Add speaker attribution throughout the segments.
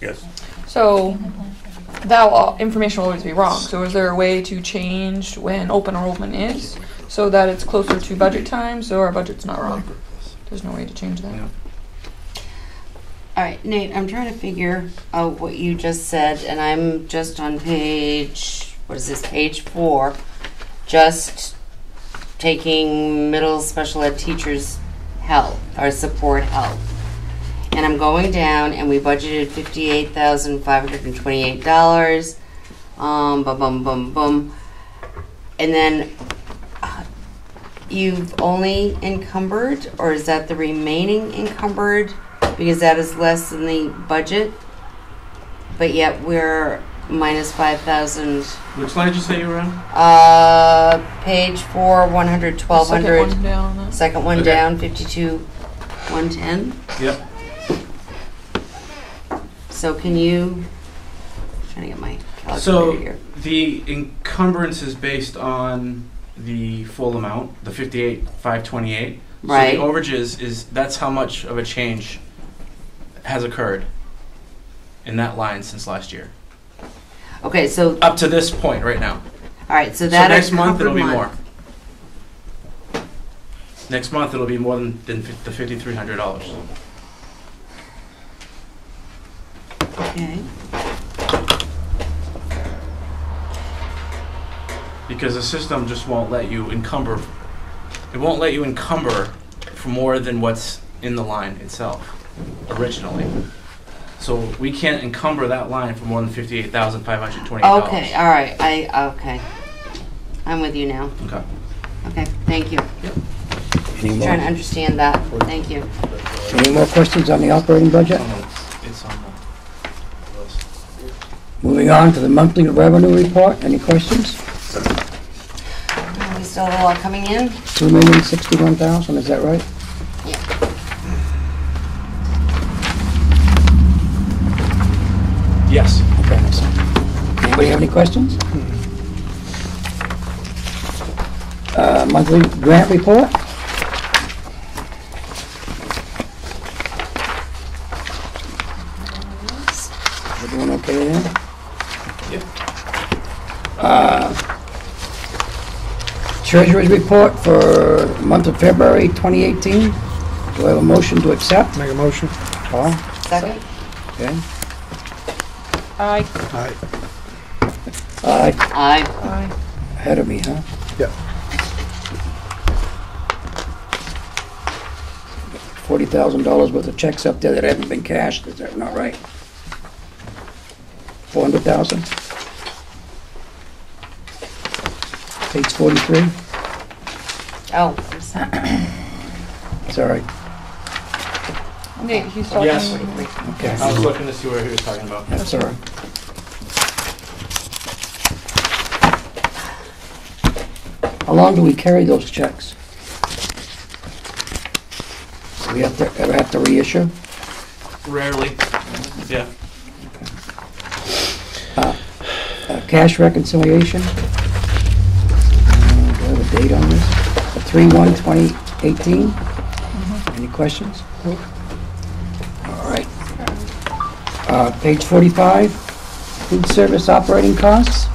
Speaker 1: Yes.
Speaker 2: So that law, information will always be wrong. So is there a way to change when open enrollment is so that it's closer to budget time so our budget's not wrong? There's no way to change that.
Speaker 3: Yeah.
Speaker 4: All right, Nate, I'm trying to figure out what you just said, and I'm just on page, what is this, page four, just taking middle special ed teachers' help or support help. And I'm going down, and we budgeted $58,528. Um, bum, bum, bum, bum. And then uh, you've only encumbered, or is that the remaining encumbered? because that is less than the budget, but yet we're minus five thousand.
Speaker 3: Which slide did you say you were on?
Speaker 4: Uh, page four, one hundred, twelve
Speaker 2: Second
Speaker 4: hundred.
Speaker 2: one down, that's-
Speaker 4: Second one
Speaker 3: Okay.
Speaker 4: down, fifty-two, one ten.
Speaker 3: Yep.
Speaker 4: So can you? Trying to get my calculator
Speaker 3: So-
Speaker 4: here.
Speaker 3: The encumbrance is based on the full amount, the fifty-eight, five twenty-eight.
Speaker 4: Right.
Speaker 3: So the overages is, that's how much of a change has occurred in that line since last year,
Speaker 4: Okay, so
Speaker 3: up to this point right now.
Speaker 4: all right, so
Speaker 3: So
Speaker 4: that
Speaker 3: next month it'll
Speaker 4: encumbered
Speaker 3: be
Speaker 4: month-
Speaker 3: more. Next month it'll be more than, than fif- the fifty-three hundred dollars.
Speaker 4: Okay,
Speaker 3: because the system just won't let you encumber. It won't let you encumber for more than what's in the line itself originally. So we can't encumber that line for more than fifty-eight thousand five hundred twenty-eight dollars.
Speaker 4: okay, all right. I okay. I'm with you now.
Speaker 3: Okay.
Speaker 4: Okay, thank you.
Speaker 5: Any
Speaker 4: Trying to
Speaker 5: more,
Speaker 4: understand that. Thank you.
Speaker 5: any more questions on the operating budget?
Speaker 3: It's on the list.
Speaker 5: Moving on to the monthly revenue report, any questions?
Speaker 4: We still have a lot coming in.
Speaker 5: Two million sixty-one thousand, is that right?
Speaker 3: Yes.
Speaker 5: Okay, that's it. Anybody have any questions? Uh, monthly grant report? Everyone okay there?
Speaker 3: Yep.
Speaker 5: Treasurer's report for month of February 2018. Do I have a motion to accept?
Speaker 6: Make a motion.
Speaker 5: Paul?
Speaker 4: Second?
Speaker 5: Okay.
Speaker 2: Aye,
Speaker 6: Aye.
Speaker 5: Uh,
Speaker 4: Aye.
Speaker 2: aye.
Speaker 5: Ahead of me, huh?
Speaker 6: Yep.
Speaker 5: Forty thousand dollars worth of checks up there that haven't been cashed, is that not right? Four hundred thousand? Page forty-three,
Speaker 4: Oh, I'm sorry.
Speaker 5: sorry,
Speaker 2: Nate, he's talking.
Speaker 3: Yes.
Speaker 5: okay,
Speaker 3: I was looking to see what he was talking about.
Speaker 5: that's all right. How long do we carry those checks? Do we have to, ever have to reissue?
Speaker 3: Rarely. Yeah.
Speaker 5: Uh, Cash reconciliation. Uh, Do I have a date on this? Three one 2018 Any questions? All right. Uh, Page 45, food service operating costs.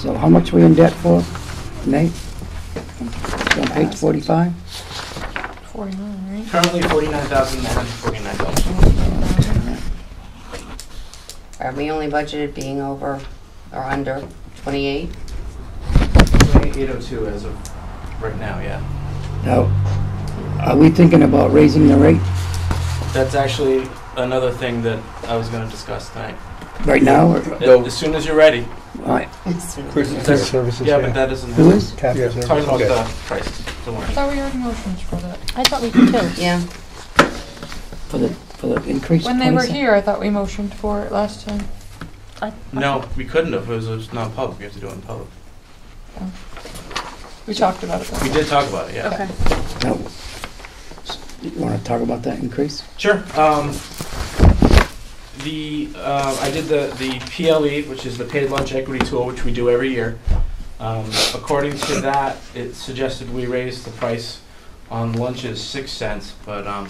Speaker 5: So how much we in debt for, Nate? It's On page 45?
Speaker 2: Forty-nine, right?
Speaker 3: Currently forty-nine thousand nine hundred forty-nine dollars.
Speaker 4: Are we only budgeted being over or under twenty-eight?
Speaker 3: Eight oh two as of right now, yeah.
Speaker 5: Now, are we thinking about raising the rate
Speaker 3: That's actually another thing that I was gonna discuss tonight.
Speaker 5: right now? or-
Speaker 3: Uh, As soon as you're ready.
Speaker 5: all right,
Speaker 3: That's-
Speaker 6: services,
Speaker 3: Yeah, but that doesn't.
Speaker 5: Who is?
Speaker 6: Capital Yeah.
Speaker 3: Talking about
Speaker 6: Okay.
Speaker 3: the prices, don't
Speaker 2: I
Speaker 3: worry.
Speaker 2: thought we already motioned for that.
Speaker 7: I thought we did too.
Speaker 4: Yeah,
Speaker 5: For the, for the increase?
Speaker 2: When they were
Speaker 5: 27?
Speaker 2: here, I thought we motioned for it last time.
Speaker 3: No, we couldn't have, it was, it was non-public, we have to do it in public.
Speaker 2: We talked about it.
Speaker 3: We
Speaker 2: then.
Speaker 3: did talk about it, yeah.
Speaker 7: Okay.
Speaker 5: Now, You want to talk about that increase?
Speaker 3: Sure, um, the, uh, I did the, the PLE, which is the Paid Lunch Equity Tool, which we do every year. Um, according to that, it suggested we raise the price on lunches six cents, but, um,